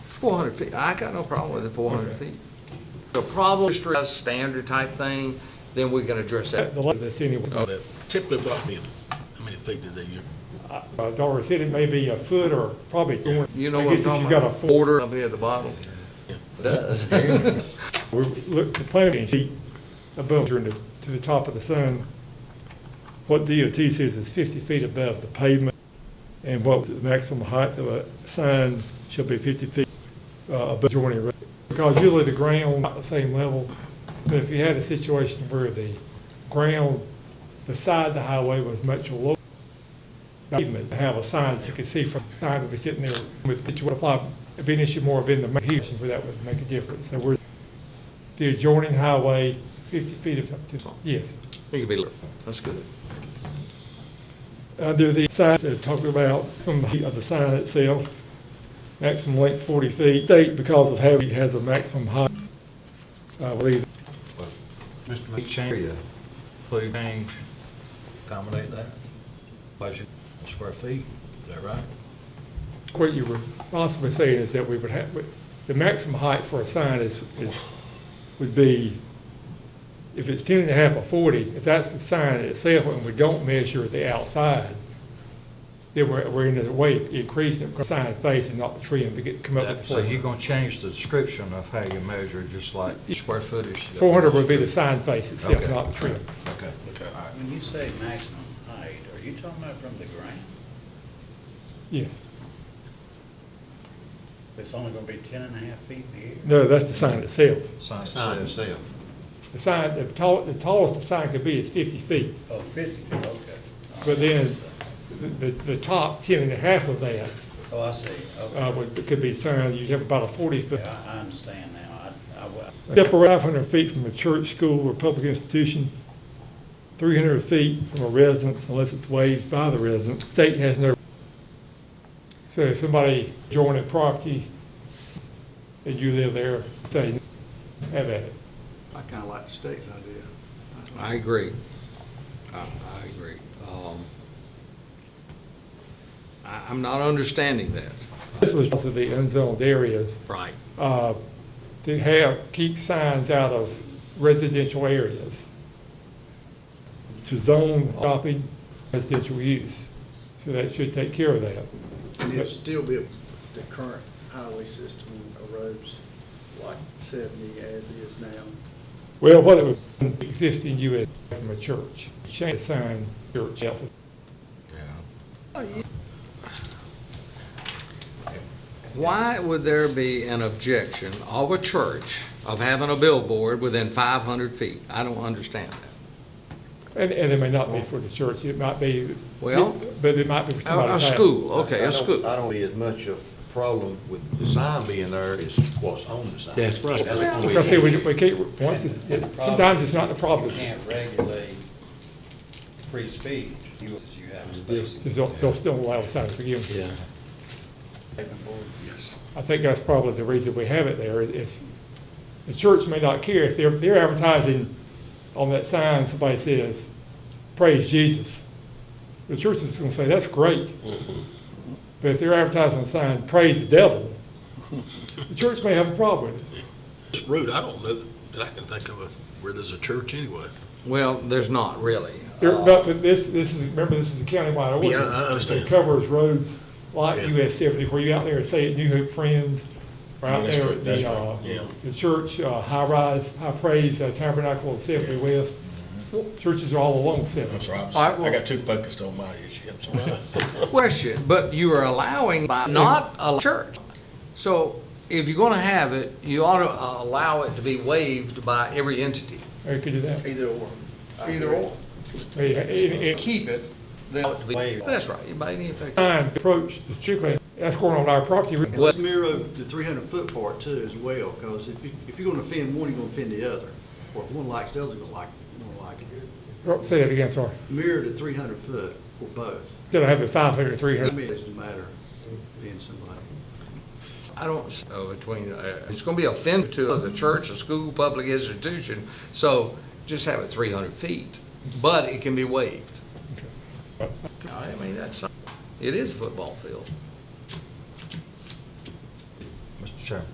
Four hundred feet, I got no problem with the four hundred Okay. feet. The problem is a standard type thing, then we can address that. The, this anyway. Typically, what's the, how many feet do they use? Uh, Dollar City may be a foot or probably going. You know I what I'm guess if talking you got a about? four, Order up here at the bottom. It Does. we look, the planning sheet above, during the, to the top of the sun, what DOT says is fifty feet above the pavement, and what the maximum height of a sign shall be fifty feet uh, above joining. road. Because usually the ground, not the same level, but if you had a situation where the ground beside the highway was much lower, pavement, to have a sign that you can see from the sign that be sitting there with, that you would apply, it'd be an issue more of in the main here, where that would make a difference. So we're, the adjoining highway, fifty feet of, to- yes. It could be, little. that's good. Under the signs that talk about from the heat of the sign itself, maximum length forty feet, state because of how it has a maximum height. I believe, Mr. McChange, please change, accommodate that, budget square feet, is that right? what you were possibly saying is that we would have, the maximum height for a sign is, is, would be, if it's ten and a half or forty, if that's the sign itself and we don't measure the outside, then we're, we're in a way increasing the sign face and not the tree and to get, come up with. the So you're gonna change the description of how you measure, just like square footage? Four hundred would be the sign face itself, Okay. not the trim. Okay, all right. When you say maximum height, are you talking about from the ground? Yes. It's only gonna be ten and a half feet in the air? No, that's the sign itself. Sign Sign itself. The sign, the tall, the tallest the sign could be is fifty feet, Oh, fifty, okay. All but right. then the, the top ten and a half of that, Oh, I see, uh, okay. would, could be signed, you have about a forty foot. Yeah, I, I understand now, I, I, wa- Separate five hundred feet from a church, school, or public institution, three hundred feet from a residence unless it's waived by the residence, state has no. So if somebody joining property and you live there, say, have at it. I kind of like the state's idea. I agree. I, I agree. Um, I, I'm not understanding that. This was also the unzoned areas, Right. uh, to have, keep signs out of residential areas, to zone shopping residential use. So that should take care of that. And it'd still be the current highway system of roads, like seventy as is now. Well, what it would, existing US from a church, change the sign, church else. Yeah. Why would there be an objection of a church of having a billboard within five hundred feet? I don't understand that. And, and it may not be for the church, it might be. Well, But it might be for A, somebody's a house. school, okay, I a don't- I school. don't see as much of a problem with the sign being there as what's on the sign. That's right. That's gonna be Because see, we, an we issue. can't, once, it's- it- sometimes it's not the problem, You can't regulate free speech, you, you have space. it's- they'll, they'll still allow signs again. Yes. I think that's probably the reason we have it there, is the church may not care if they're, they're advertising on that sign, somebody says, praise Jesus. The church is gonna say, that's great. But if they're advertising a sign, praise the devil, the church may have a problem with it. It's rude, I don't know that I can think of a- where there's a church anyway. Well, there's not really. There- but but this, this is, remember, this is a countywide Yeah, I- I ordinance. understand. It covers roads like Yeah. US seventy, where you out there, say at New Hope Friends, right Yeah, out that's there true, at that's the, right, uh, yeah. the church, uh, High Rise, High Praise uh, Tabernacle at seventy West. Churches are all along seventy. sorry, All right, well- I got too focused on my issue, I'm sorry. Question, but you are allowing by not a church. So if you're gonna have it, you ought to uh, allow it to be waived by every entity. Or you could do that. Either or. I Either agree. or. Or you- and- and- Keep it, then it to be, that's right, by any effect. Trying to approach the chicken, that's going on our property. And let's mirror the three hundred foot part too as well, because if you, if you're gonna offend one, you're gonna offend the other. Or if one likes the other, you're gonna like, you're gonna like it. Oh, Say that again, sorry. Mirror the three hundred foot for both. Instead of having five hundred, three I hundred. mean, it doesn't matter being somebody. I don't, s- uh, between, uh, it's gonna be offensive to us, a church, a school, public institution, so just have it three hundred feet, but it can be waived. I mean, that's, it is a football field. Mr. Sure.